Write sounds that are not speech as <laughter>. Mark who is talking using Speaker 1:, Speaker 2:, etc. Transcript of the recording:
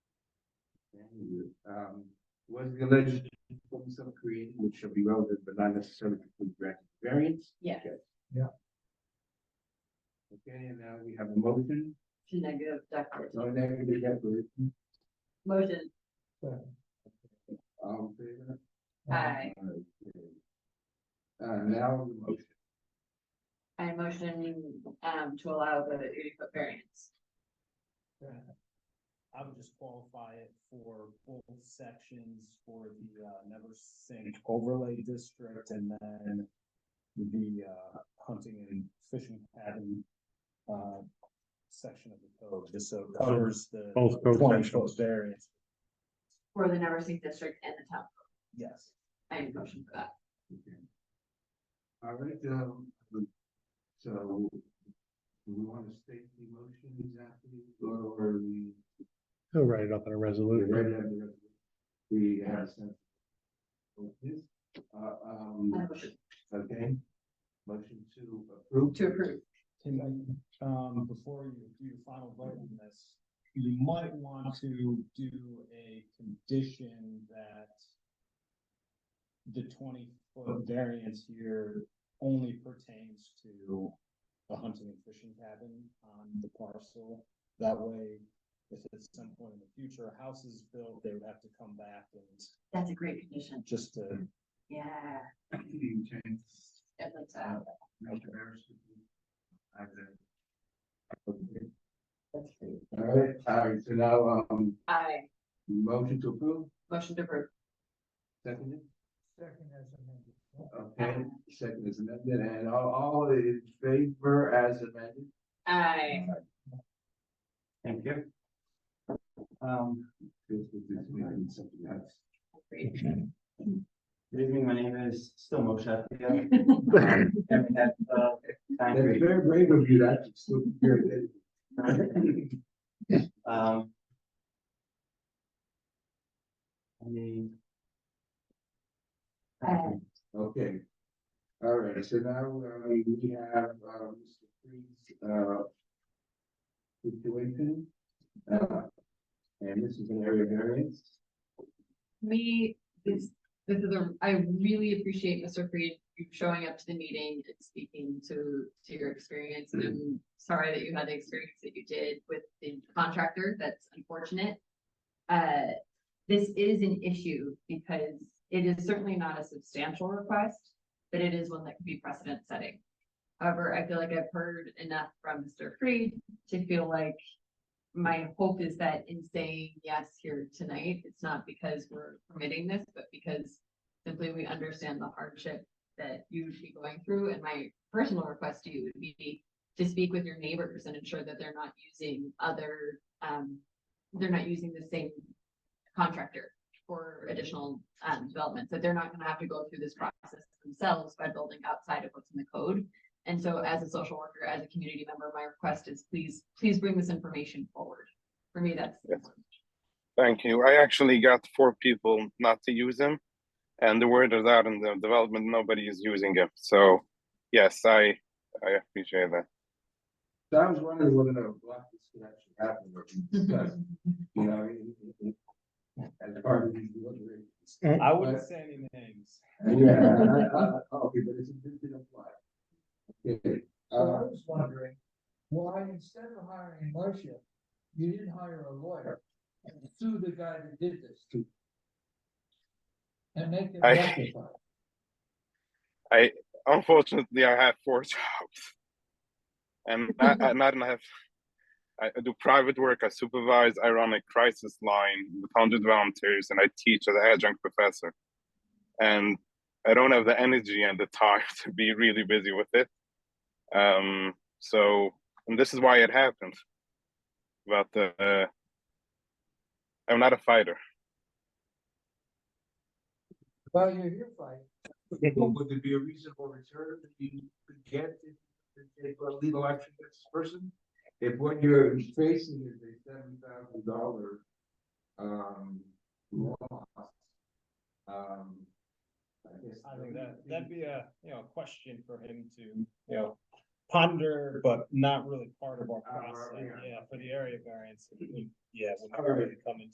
Speaker 1: hundred, um, was the alleged performance of created, which shall be relevant but not necessarily complete grant variance?
Speaker 2: Yeah.
Speaker 1: Okay.
Speaker 3: Yeah.
Speaker 1: Okay, and now we have a motion,
Speaker 2: to negative declaration.
Speaker 1: no negative declaration,
Speaker 2: Motion,
Speaker 1: um, favor?
Speaker 2: I,
Speaker 1: Okay. Uh, now the motion,
Speaker 2: I motion, um, to allow the eighty foot variance.
Speaker 4: I would just qualify it for both sections for the uh Never Sink overlay district and then the uh hunting and fishing cabin uh section of the code, just so it covers the
Speaker 5: Both code
Speaker 4: twenty
Speaker 5: sections.
Speaker 4: foot variance.
Speaker 2: For the Never Sink District and the town,
Speaker 4: Yes.
Speaker 2: I am motion for that.
Speaker 1: okay. All right, um, so do we want to state the motion exactly, or or we?
Speaker 5: He'll write it up in a resolution.
Speaker 1: We have some. Yes, uh, um,
Speaker 2: I motion
Speaker 1: okay, motion to approve.
Speaker 2: to approve,
Speaker 4: Tim, I- um, before you do your final vote on this, you might want to do a condition that the twenty foot variance here only pertains to the hunting and fishing cabin on the parcel. That way, if at some point in the future, a house is built, they would have to come back and
Speaker 2: that's a great condition,
Speaker 4: just to,
Speaker 2: yeah,
Speaker 1: You change,
Speaker 2: I'd like to,
Speaker 1: Mr. Harris, if you- I did. Okay. All right, all right, so now, um,
Speaker 2: I,
Speaker 1: motion to approve,
Speaker 2: motion to approve,
Speaker 1: seconded,
Speaker 3: Second as amended.
Speaker 1: okay, second is amended, and all, all in favor as amended?
Speaker 2: I,
Speaker 1: Thank you.
Speaker 6: Um,
Speaker 1: This this may be something else.
Speaker 2: agree.
Speaker 6: good evening, my name is still Moshe. Atiyah. I'm at, uh, ninth
Speaker 1: That's
Speaker 6: grade.
Speaker 1: very brave of you, that's. so good.
Speaker 6: Um, any-
Speaker 2: Uh,
Speaker 1: Okay. All right, so now uh, we have uh, Mr. Freed's uh situation. Uh, And this is an area variance.
Speaker 2: me, this, this is a, I really appreciate Mr. Freed, you showing up to the meeting and speaking to, to your experience. And I'm sorry that you had the experience that you did with the contractor, that's unfortunate. Uh, this is an issue because it is certainly not a substantial request, but it is one that could be precedent setting. However, I feel like I've heard enough from Mr. Freed to feel like my hope is that in saying yes here tonight, it's not because we're permitting this, but because simply we understand the hardship that you would be going through, and my personal request to you would be to speak with your neighbors and ensure that they're not using other, um, they're not using the same contractor for additional, um, developments, that they're not gonna have to go through this process themselves by building outside of what's in the code. And so as a social worker, as a community member, my request is please, please bring this information forward. For me, that's.
Speaker 7: Thank you. I actually got four people not to use them, and the word is out in the development. Nobody is using it. So, yes, I I appreciate that.
Speaker 1: So I was wondering whether a block this could actually happen or be
Speaker 2: <laughs>
Speaker 1: discussed, you know, in- in- in- as part of these deliberations.
Speaker 4: I wouldn't say any names.
Speaker 1: Yeah, I- I- I- okay, but it's a bit of a lot. Okay,
Speaker 3: So I
Speaker 1: uh,
Speaker 3: was wondering, why instead of hiring Moshe, you didn't hire a lawyer and sue the guy that did this to you? And make him
Speaker 7: <laughs> I-
Speaker 3: rectify. it?
Speaker 7: Unfortunately, I have four <laughs> jobs, and I, I not and I have. I I do private work. I supervise. I run a crisis line with hundred volunteers, and I teach as an adjunct professor. And I don't have the energy and the time <laughs> to be really busy with it. Um. So, and this is why it happened. But uh, I'm not a fighter.
Speaker 3: Well, you're here fighting.
Speaker 1: well, would there be a reasonable return that you could get if, if they put a legal action against this person? If what you're facing is a seven thousand dollar, um, loss, um, I guess.
Speaker 4: I think that, that'd be a, you know, a question for him to, you know, ponder, but not really part of our
Speaker 1: Our-
Speaker 4: process,
Speaker 1: yeah.
Speaker 4: yeah, for the area variance. Yeah, we're not
Speaker 1: Alright.
Speaker 4: really coming